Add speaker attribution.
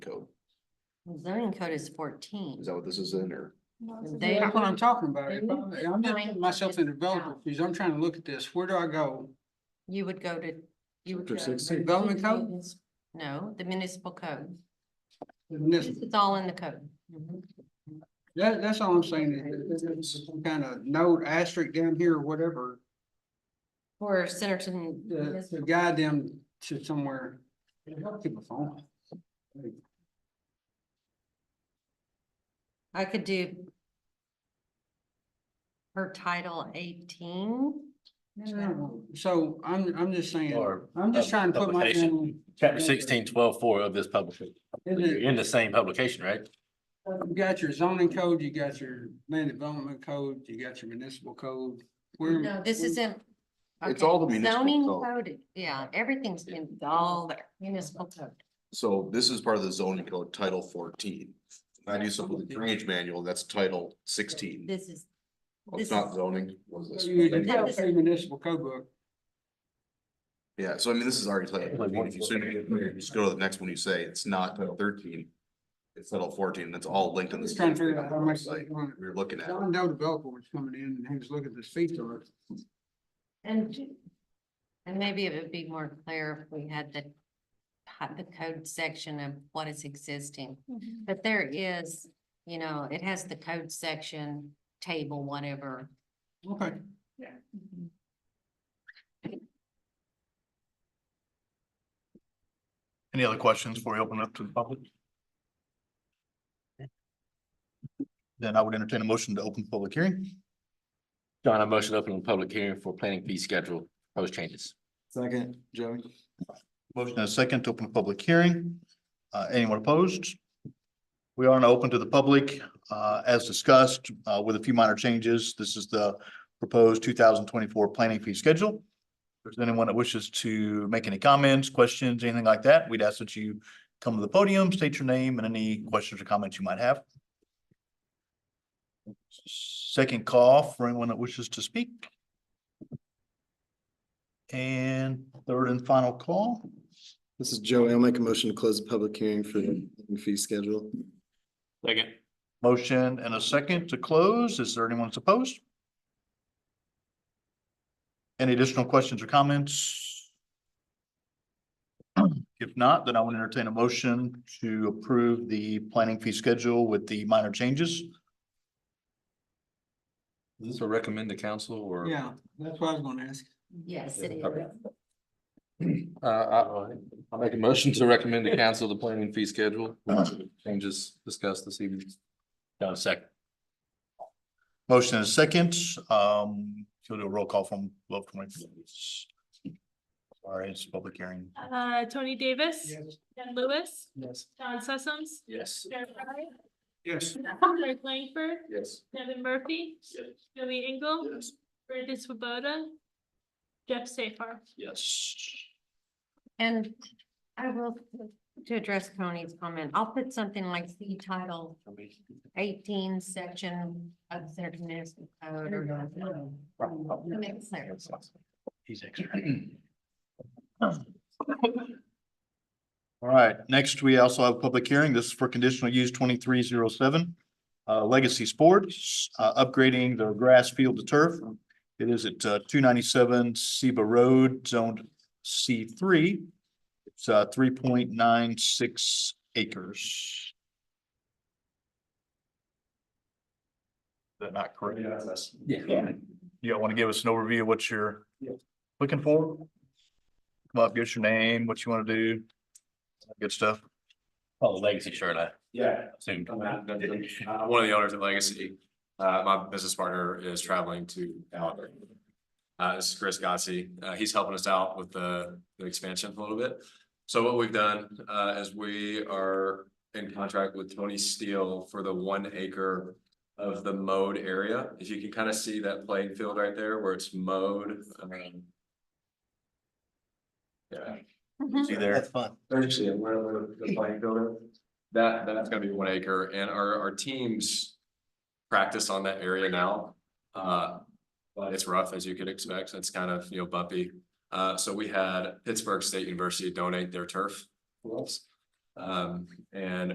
Speaker 1: code.
Speaker 2: Zoning code is fourteen.
Speaker 1: Is that what this is in or?
Speaker 2: They
Speaker 3: That's what I'm talking about. If
Speaker 2: they
Speaker 3: I'm
Speaker 2: need to
Speaker 3: I'm just
Speaker 2: find
Speaker 3: putting myself in
Speaker 2: this
Speaker 3: developer
Speaker 2: out.
Speaker 3: fees. I'm trying to look at this. Where do I go?
Speaker 2: You would go to, you would.
Speaker 1: Chapter
Speaker 2: go to
Speaker 1: 16.
Speaker 3: Development code?
Speaker 2: munis- No, the municipal code.
Speaker 3: And this-
Speaker 2: It's all in the code.
Speaker 3: That, that's all I'm saying. is that there's Some kind of note asterisk down here or whatever,
Speaker 2: For Centerton.
Speaker 3: to to guide them to somewhere. Keep a phone.
Speaker 2: I could do her title eighteen.
Speaker 3: So I'm, I'm just saying,
Speaker 4: Or
Speaker 3: I'm just trying
Speaker 4: pub-
Speaker 3: to put my.
Speaker 4: publication.
Speaker 3: own-
Speaker 4: chapter sixteen, twelve, four of this publication,
Speaker 3: Isn't
Speaker 4: you're
Speaker 3: it-
Speaker 4: in the same publication, right?
Speaker 3: You got your zoning code, you got your land development code, you got your municipal code. Where-
Speaker 2: No, this isn't.
Speaker 1: It's
Speaker 2: okay,
Speaker 1: all the municipal
Speaker 2: Zoning
Speaker 1: code.
Speaker 2: code, yeah, everything's in all there, municipal code.
Speaker 1: So this is part of the zoning code, title fourteen. I do something with the drainage manual, that's title sixteen.
Speaker 2: This is.
Speaker 1: Oh,
Speaker 2: this
Speaker 1: It's not
Speaker 2: is-
Speaker 1: zoning. was this?
Speaker 3: You can
Speaker 2: No,
Speaker 3: tell
Speaker 2: this-
Speaker 3: it's a municipal code book.
Speaker 1: Yeah, so I mean, this is already title fourteen. If you say- Just go to the next one you say, it's not title thirteen. It's title fourteen, that's all linked in
Speaker 3: I'm
Speaker 1: this.
Speaker 3: just trying to figure out how much. they
Speaker 1: Like,
Speaker 3: want.
Speaker 1: We were looking at.
Speaker 3: John Doe developer was coming in and he was looking at this fee chart.
Speaker 2: And, j- and maybe it would be more clear if we had the, had the code section of what is existing. But there is, you know, it has the code section, table, whatever.
Speaker 3: Okay.
Speaker 5: Any other questions before we open it up to the public? Then I would entertain a motion to open the public hearing.
Speaker 4: John, I motion to open the public hearing for planning fee schedule, proposed changes.
Speaker 1: Second, Joey.
Speaker 5: Motion and a second to open the public hearing. Uh, anyone opposed? We are now open to the public, uh, as discussed, uh, with a few minor changes. This is the proposed two thousand twenty-four planning fee schedule. If there's anyone that wishes to make any comments, questions, anything like that, we'd ask that you come to the podium, state your name and any questions or comments you might have. Second call for anyone that wishes to speak. And third and final call.
Speaker 6: This is Joey. I'll make a motion to close the public hearing for the fee schedule.
Speaker 4: Second.
Speaker 5: Motion and a second to close. Is there anyone that's opposed? Any additional questions or comments? If not, then I would entertain a motion to approve the planning fee schedule with the minor changes.
Speaker 4: Is this a recommend to council or?
Speaker 3: Yeah, that's what I was gonna ask.
Speaker 2: Yes, it is.
Speaker 4: Okay. Uh, I, I'll make a motion to recommend to council the planning fee schedule, changes discussed this evening. John, second.
Speaker 5: Motion and a second. Um, so do a roll call from twelve twenty. Sorry, it's a public hearing.
Speaker 7: Uh, Tony Davis, Ben Lewis,
Speaker 4: Yes.
Speaker 7: John Sessoms,
Speaker 4: Yes.
Speaker 7: Jared Fry,
Speaker 3: Yes.
Speaker 7: Greg Langford,
Speaker 4: Yes.
Speaker 7: Devin Murphy, Joey Engel, Brandon Swoboda, Jeff Safar.
Speaker 4: Yes.
Speaker 2: And I will, to address Tony's comment, I'll put something like the title eighteen section of Centerton Municipal Code or. To make it clear.
Speaker 5: He's extra. All right, next we also have a public hearing. This is for conditional use twenty-three zero seven. Uh, Legacy Sports, uh, upgrading their grass field to turf. It is at, uh, two ninety-seven Seba Road, zoned C three. It's, uh, three point nine six acres. Is that not correct?
Speaker 4: Yeah.
Speaker 5: You want to give us an overview of what you're looking for? Come up, give us your name, what you want to do. Good stuff.
Speaker 4: Oh, legacy shirt, I
Speaker 8: Yeah,
Speaker 4: assumed.
Speaker 8: I'm not- I'm I'm one of the owners of Legacy. Uh, my business partner is traveling to Albuquerque. Uh, this is Chris Gossi. Uh, he's helping us out with the, the expansion a little bit. So what we've done, uh, is we are in contract with Tony Steele for the one acre of the mowed area. If you can kind of see that playing field right there where it's mowed. um, Yeah.
Speaker 5: See there. That's fun.
Speaker 8: Actually, yeah, where where the playing field is. That, that's gonna be one acre and our, our teams practice on that area now. Uh, but it's rough as you could expect. It's kind of, you know, bumpy. Uh, so we had Pittsburgh State University donate their turf. to us. Um, and